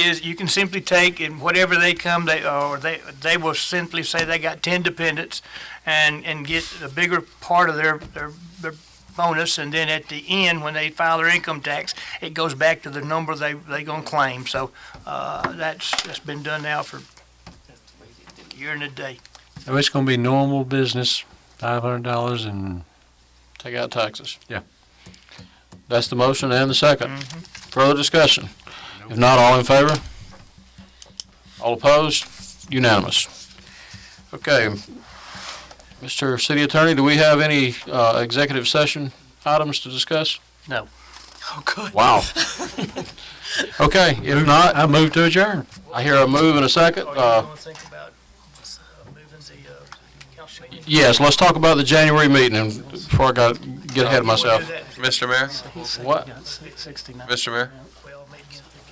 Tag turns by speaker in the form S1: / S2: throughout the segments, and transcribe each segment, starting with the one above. S1: is you can simply take and whatever they come, they, or they, they will simply say they got ten dependents and, and get a bigger part of their, their, their bonus, and then at the end, when they file their income tax, it goes back to the number they, they gonna claim, so, uh, that's, that's been done now for a year and a day.
S2: So it's gonna be normal business, five hundred dollars and
S3: Take out taxes.
S2: Yeah.
S3: That's the motion and the second.
S4: Mm-hmm.
S3: Further discussion? If not, all in favor? All opposed? Unanimous. Okay. Mr. City Attorney, do we have any uh, executive session items to discuss?
S1: No.
S4: Oh, good.
S3: Wow. Okay, if not,
S2: I move to adjourn.
S3: I hear a move and a second. Uh,
S1: to Oh, think about moving the, uh, council meeting?
S3: Yes, let's talk about the January meeting and before I got, get ahead of myself.
S5: Mr. Mayor,
S3: What?
S1: Sixty-nine.
S5: Mr. Mayor,
S1: Well, maybe.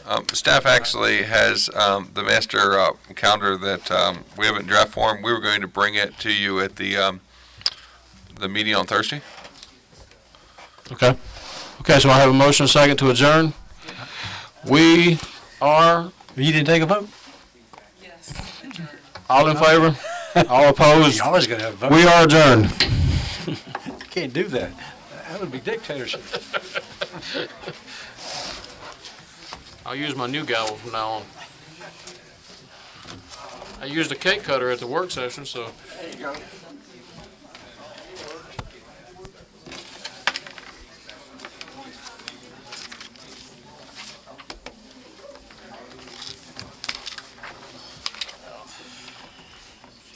S5: um, staff actually has, um, the master, uh, calendar that, um, we have in draft form. We were going to bring it to you at the, um, the meeting on Thursday.
S3: Okay. Okay, so I have a motion and a second to adjourn. We are,
S2: You didn't take a vote?
S4: Yes.
S3: all in favor? All opposed?
S2: You always gotta have a vote.
S3: We are adjourned.
S2: You can't do that. That would be dictatorship.
S3: I'll use my new gavel from now on. I used a cake cutter at the work session, so.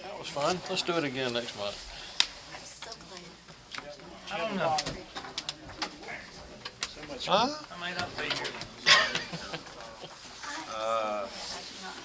S3: That was fun. Let's do it again next month.
S6: So glad.
S1: I don't know. I may not be here.